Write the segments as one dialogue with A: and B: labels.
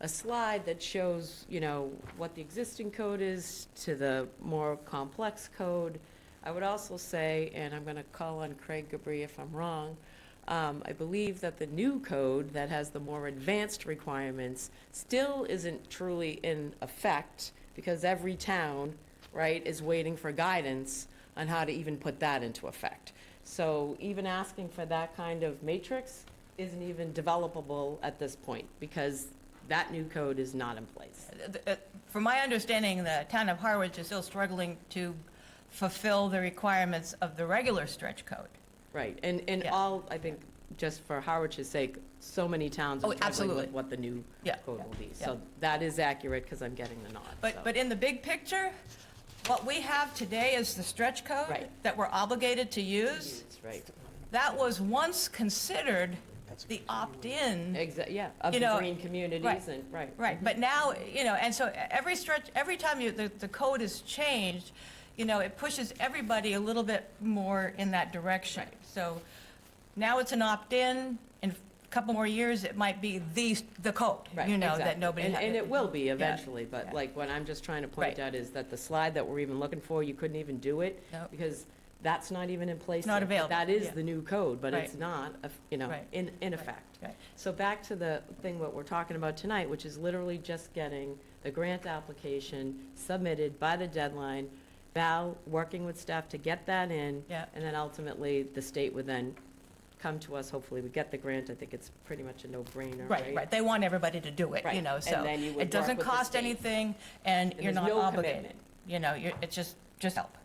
A: a slide that shows, you know, what the existing code is to the more complex code. I would also say, and I'm going to call on Craig Gabri if I'm wrong, um, I believe that the new code that has the more advanced requirements still isn't truly in effect because every town, right, is waiting for guidance on how to even put that into effect. So even asking for that kind of matrix isn't even developable at this point because that new code is not in place.
B: Uh, From my understanding, the town of Harwich is still struggling to fulfill the requirements of the regular stretch code.
A: Right, and, and
B: Yeah.
A: all, I think, just for Harwich's sake, so many towns
B: Oh,
A: are struggling
B: absolutely.
A: with what the new
B: Yeah,
A: code
B: yeah,
A: will be.
B: yeah.
A: So that is accurate because I'm getting the nod. so.
B: But, but in the big picture, what we have today is the stretch code
A: Right.
B: that we're obligated to use.
A: That's right.
B: That was once considered the opt-in,
A: Exactly, yeah, of
B: You
A: the
B: know,
A: green communities
B: right,
A: and, right.
B: right? But now, you know, and so every stretch, every time you, the, the code is changed, you know, it pushes everybody a little bit more in that direction. So now it's an opt-in. In a couple more years, it might be the, the code,
A: Right,
B: you know, that
A: exactly.
B: nobody.
A: And,
B: had-
A: and it will be eventually,
B: yeah.
A: but like, what I'm just trying to point
B: Right.
A: out is that the slide that we're even looking for, you couldn't even do it.
B: Nope.
A: Because that's not even in place.
B: It's not
A: yet.
B: available,
A: That is
B: yeah.
A: the new code, but it's
B: Right.
A: not, uh, you know,
B: Right.
A: in, in
B: Right,
A: effect.
B: right.
A: So back to the thing what we're talking about tonight, which is literally just getting the grant application submitted by the deadline, Val working with staff to get that in.
B: Yeah.
A: And then ultimately, the state would then come to us, hopefully we get the grant, I think it's pretty much a no-brainer, right?
B: Right, right. They want everybody to do it, you
A: Right.
B: know,
A: And
B: so.
A: then you would
B: It doesn't
A: work with the
B: cost
A: state.
B: anything,
A: And
B: and you're
A: there's
B: not
A: no
B: obligated.
A: commitment.
B: You know, you're, it's just, just help.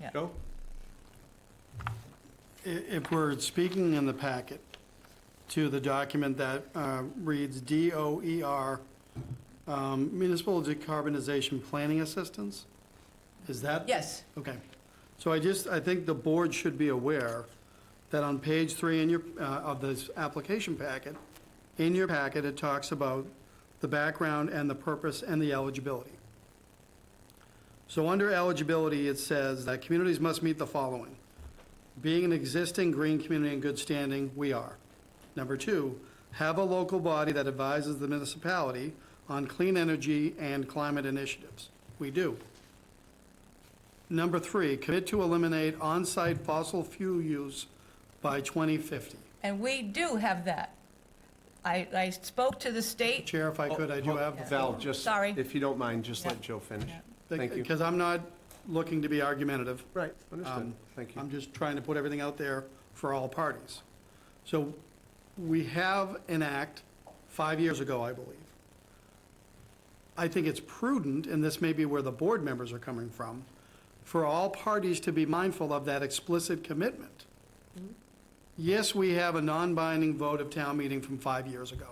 B: Yeah.
C: Joe?
D: I- If we're speaking in the packet to the document that uh, reads DOER, um, Municipal Decarbonization Planning Assistance, is that?
B: Yes.
D: Okay. So I just, I think the board should be aware that on page three in your, uh, of this application packet, in your packet, it talks about the background and the purpose and the eligibility. So under eligibility, it says that communities must meet the following. Being an existing green community in good standing, we are. Number two, have a local body that advises the municipality on clean energy and climate initiatives. We do. Number three, commit to eliminate on-site fossil fuel use by 2050.
B: And we do have that. I, I spoke to the state.
D: Chair,
C: Oh,
D: if I could, I do have the
C: Val, just.
B: Oh, Sorry.
C: If you don't mind, just
B: Yeah.
C: let Joe finish.
B: Yeah.
C: Thank you.
D: Because I'm not looking to be argumentative.
C: Right, understood.
D: Um,
C: Thank
D: I'm
C: you.
D: just trying to put everything out there for all parties. So we have an act five years ago, I believe. I think it's prudent, and this may be where the board members are coming from, for all parties to be mindful of that explicit commitment. Yes, we have a non-binding vote of town meeting from five years ago.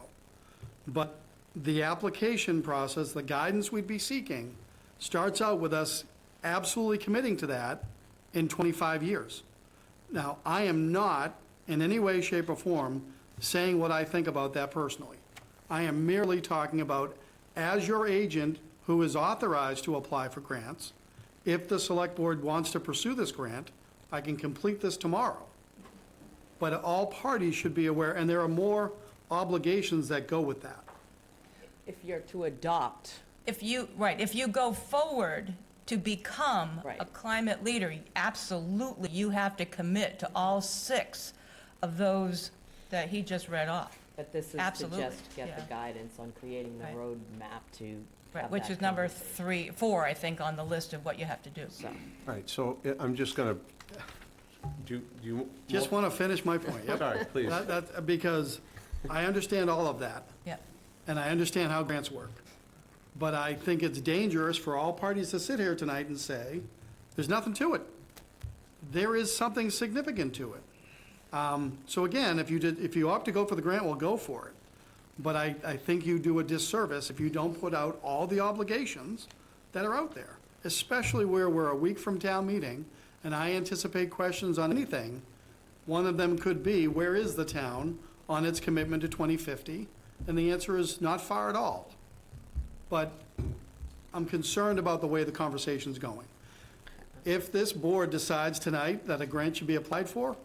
D: But the application process, the guidance we'd be seeking, starts out with us absolutely committing to that in 25 years. Now, I am not in any way, shape, or form saying what I think about that personally. I am merely talking about, as your agent who is authorized to apply for grants, if the select board wants to pursue this grant, I can complete this tomorrow but all parties should be aware, and there are more obligations that go with that.
A: If you're to adopt,
B: If you, right, if you go forward to become a
A: Right.
B: climate leader, absolutely, you have to commit to all six of those that he just read off.
A: but this is to
B: Absolutely,
A: just get the
B: yeah.
A: guidance on creating the
B: Right.
A: roadmap to
B: Right,
A: have
B: which
A: that
B: is number
A: conversation.
B: three, four, I think, on the list of what you have to do.
A: So,
C: All right, so I- I'm just going to, do do you?
D: Just want to finish my point, yep.
C: Sorry, please.
D: That- that- because I understand all of that,
B: Yeah.
D: and I understand how grants work. But I think it's dangerous for all parties to sit here tonight and say, there's nothing to it. There is something significant to it. Um, So again, if you did, if you opt to go for the grant, well, go for it. But I, I think you do a disservice if you don't put out all the obligations that are out there, especially where we're a week from town meeting, and I anticipate questions on anything. One of them could be, where is the town on its commitment to 2050? And the answer is not far at all. But I'm concerned about the way the conversation's going. If this board decides tonight that a grant should be applied for,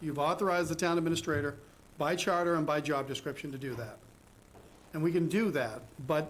D: you've authorized the town administrator by charter and by job description to do that. And we can do that, but